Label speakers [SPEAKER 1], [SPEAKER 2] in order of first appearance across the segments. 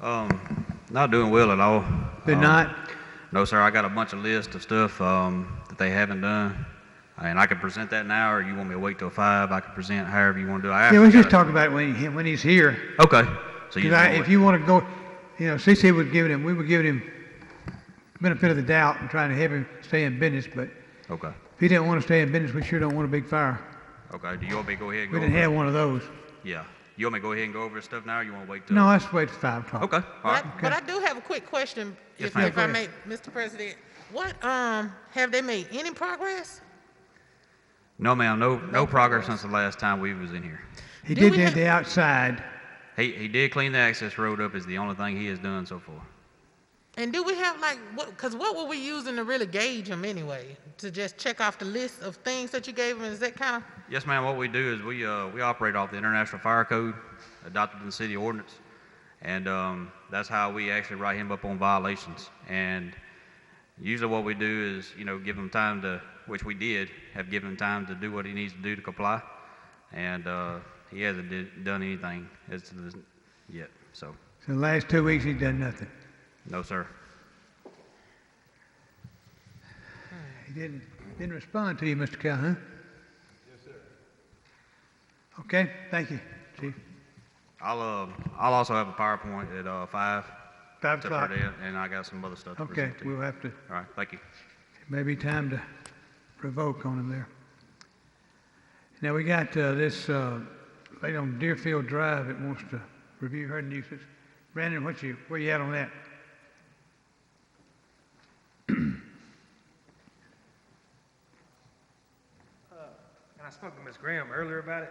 [SPEAKER 1] Um, not doing well at all.
[SPEAKER 2] They're
[SPEAKER 1] Um,
[SPEAKER 2] not?
[SPEAKER 1] No, sir. I got a bunch of lists of stuff um, that they haven't done, and I can present that now, or you want me to wait till five? I can present however you want to do. it. I
[SPEAKER 2] Yeah, we
[SPEAKER 1] actually
[SPEAKER 2] just
[SPEAKER 1] got
[SPEAKER 2] talk about it when, he- when he's here.
[SPEAKER 1] a- Okay. So you
[SPEAKER 2] Because
[SPEAKER 1] just
[SPEAKER 2] I,
[SPEAKER 1] wanna
[SPEAKER 2] if
[SPEAKER 1] wait.
[SPEAKER 2] you want to go, you know, CC would give him, we were giving him benefit of the doubt and trying to help him stay in business, but
[SPEAKER 1] okay.
[SPEAKER 2] if he didn't want to stay in business, we sure don't want a big fire.
[SPEAKER 1] Okay. Do you want me to go ahead and
[SPEAKER 2] We
[SPEAKER 1] go?
[SPEAKER 2] didn't
[SPEAKER 1] over-
[SPEAKER 2] have one of those.
[SPEAKER 1] Yeah. You want me to go ahead and go over this stuff now, or you want to wait till?
[SPEAKER 2] No, let's wait till five o'clock.
[SPEAKER 1] Okay. All
[SPEAKER 3] But
[SPEAKER 1] right.
[SPEAKER 3] I, but I do have a quick question,
[SPEAKER 1] Yes,
[SPEAKER 3] if,
[SPEAKER 1] ma'am.
[SPEAKER 3] if I
[SPEAKER 2] Go
[SPEAKER 3] may, Mr. President. What, um, have they made any progress?
[SPEAKER 1] No, ma'am. No, no progress since the last time we was in here.
[SPEAKER 2] He
[SPEAKER 3] Do
[SPEAKER 2] did
[SPEAKER 3] we
[SPEAKER 2] that
[SPEAKER 3] have-
[SPEAKER 2] the outside.
[SPEAKER 1] He he did clean the access road up. Is the only thing he has done so far.
[SPEAKER 3] And do we have like, what, cause what were we using to really gauge them anyway? To just check off the list of things that you gave them, is that kind of,
[SPEAKER 1] Yes, ma'am. What we do is we, uh, we operate off the International Fire Code adopted in the city ordinance. And um, that's how we actually write him up on violations. And usually what we do is, you know, give him time to, which we did, have given him time to do what he needs to do to comply. And uh, he hasn't did, done anything as to this yet. So,
[SPEAKER 2] So the last two weeks, he's done nothing.
[SPEAKER 1] no, sir.
[SPEAKER 2] He didn't, didn't respond to you, Mr. Calhoun. Yes, sir. Okay, thank you, Chief.
[SPEAKER 1] I'll, uh, I'll also have a PowerPoint at uh, 5
[SPEAKER 2] Five
[SPEAKER 1] to
[SPEAKER 2] o'clock.
[SPEAKER 1] present, and I got some other stuff to
[SPEAKER 2] Okay,
[SPEAKER 1] present to you.
[SPEAKER 2] we'll have to,
[SPEAKER 1] All right, thank you.
[SPEAKER 2] maybe time to provoke on him there. Now, we got uh, this uh, lady on Deerfield Drive that wants to review her nuisance. Brandon, what you, where you at on that?
[SPEAKER 4] And I spoke to Ms. Graham earlier about it,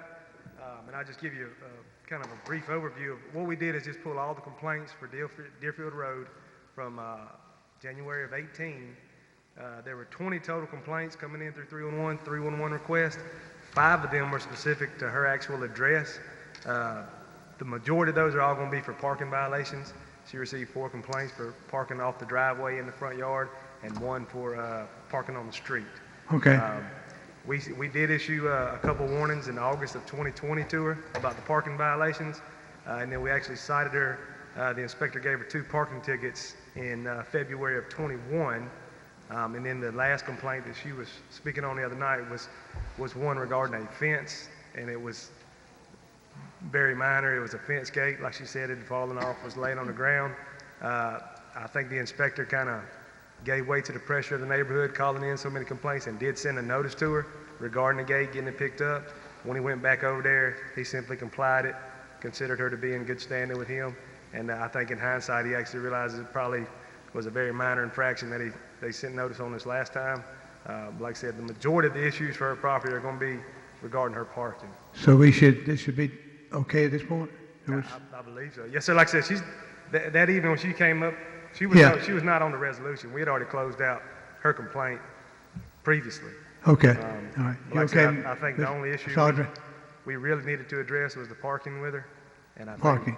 [SPEAKER 4] um, and I'll just give you uh, kind of a brief overview. of What we did is just pull all the complaints for Deerfield, Deerfield Road from uh, January of 18. Uh, There were 20 total complaints coming in through 311, 311 request. Five of them were specific to her actual address. Uh, The majority of those are all going to be for parking violations. She received four complaints for parking off the driveway in the front yard and one for uh, parking on the street.
[SPEAKER 2] Okay,
[SPEAKER 4] Um, We, we did issue uh, a couple warnings in August of 2020 to her about the parking violations, uh, and then we actually cited her. Uh, The inspector gave her two parking tickets in uh, February of '21. Um, And then the last complaint that she was speaking on the other night was, was one regarding a fence, and it was very minor. It was a fence gate, like she said, it had fallen off, was laying on the ground. Uh, I think the inspector kind of gave way to the pressure of the neighborhood, calling in so many complaints, and did send a notice to her regarding the gate getting it picked up. When he went back over there, he simply complied it, considered her to be in good standing with him, and uh, I think in hindsight, he actually realizes it probably was a very minor infraction that he, they sent notice on this last time. Uh, Like I said, the majority of the issues for her property are going to be regarding her parking.
[SPEAKER 2] so we should, this should be okay at this point? Or it's-
[SPEAKER 4] I, I believe so. Yes, sir. Like I said, she's that, that evening when she came up, she was
[SPEAKER 2] Yeah.
[SPEAKER 4] no- she was not on the resolution. We had already closed out her complaint previously.
[SPEAKER 2] Okay,
[SPEAKER 4] Um,
[SPEAKER 2] all right. You
[SPEAKER 4] like I
[SPEAKER 2] okay?
[SPEAKER 4] said, I- I think the
[SPEAKER 2] Mr.
[SPEAKER 4] only issue we-
[SPEAKER 2] Sergeant,
[SPEAKER 4] We really needed to address was the parking with her, and I think-
[SPEAKER 2] parking.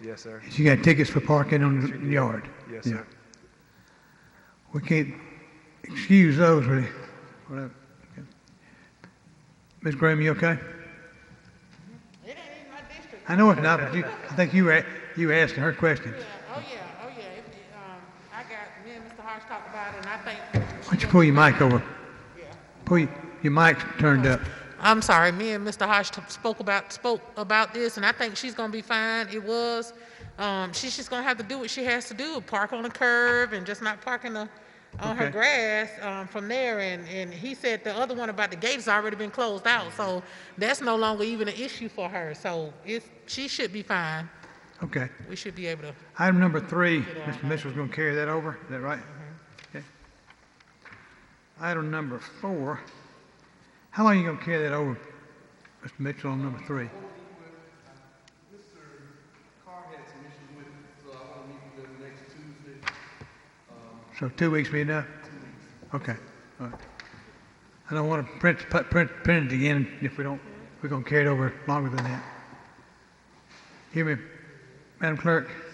[SPEAKER 4] yes, sir.
[SPEAKER 2] She got tickets for parking on the
[SPEAKER 4] did.
[SPEAKER 2] yard.
[SPEAKER 4] Yes,
[SPEAKER 2] Yeah.
[SPEAKER 4] sir.
[SPEAKER 2] We can't excuse those, really. Whatever. Okay. Ms. Graham, you okay?
[SPEAKER 3] it ain't in my district.
[SPEAKER 2] I know it's not, but you, I think you were, you were asking her questions.
[SPEAKER 3] Yeah, oh yeah, oh yeah, It- it, um, I got, me and Mr. Hodge talked about it, and I think.
[SPEAKER 2] Why don't you pull your mic over? Pull your, your mic's turned up.
[SPEAKER 3] I'm sorry, me and Mr. Hodge t- spoke about, spoke about this, and I think she's gonna be fine, it was. Um, she's just gonna have to do what she has to do, park on the curb and just not parking the, on her
[SPEAKER 2] Okay.
[SPEAKER 3] grass, um, from there, and, and he said the other one about the gate's already been closed out, so that's no longer even an issue for her, so it's, she should be fine,
[SPEAKER 2] Okay.
[SPEAKER 3] we should be able to.
[SPEAKER 2] Item number three, Mr. Mitchell's going to carry that over, is that right? Okay. Item number four, how long are you going to carry that over, Mr. Mitchell, on number three?
[SPEAKER 5] uh, Carr had some issues with it, so I want to meet with him next Tuesday. Um,
[SPEAKER 2] So two weeks be enough? Okay, all right. I don't want to print, put- print, print it again if we don't, we're going to carry it over longer than that. Hear me, Madam Clerk?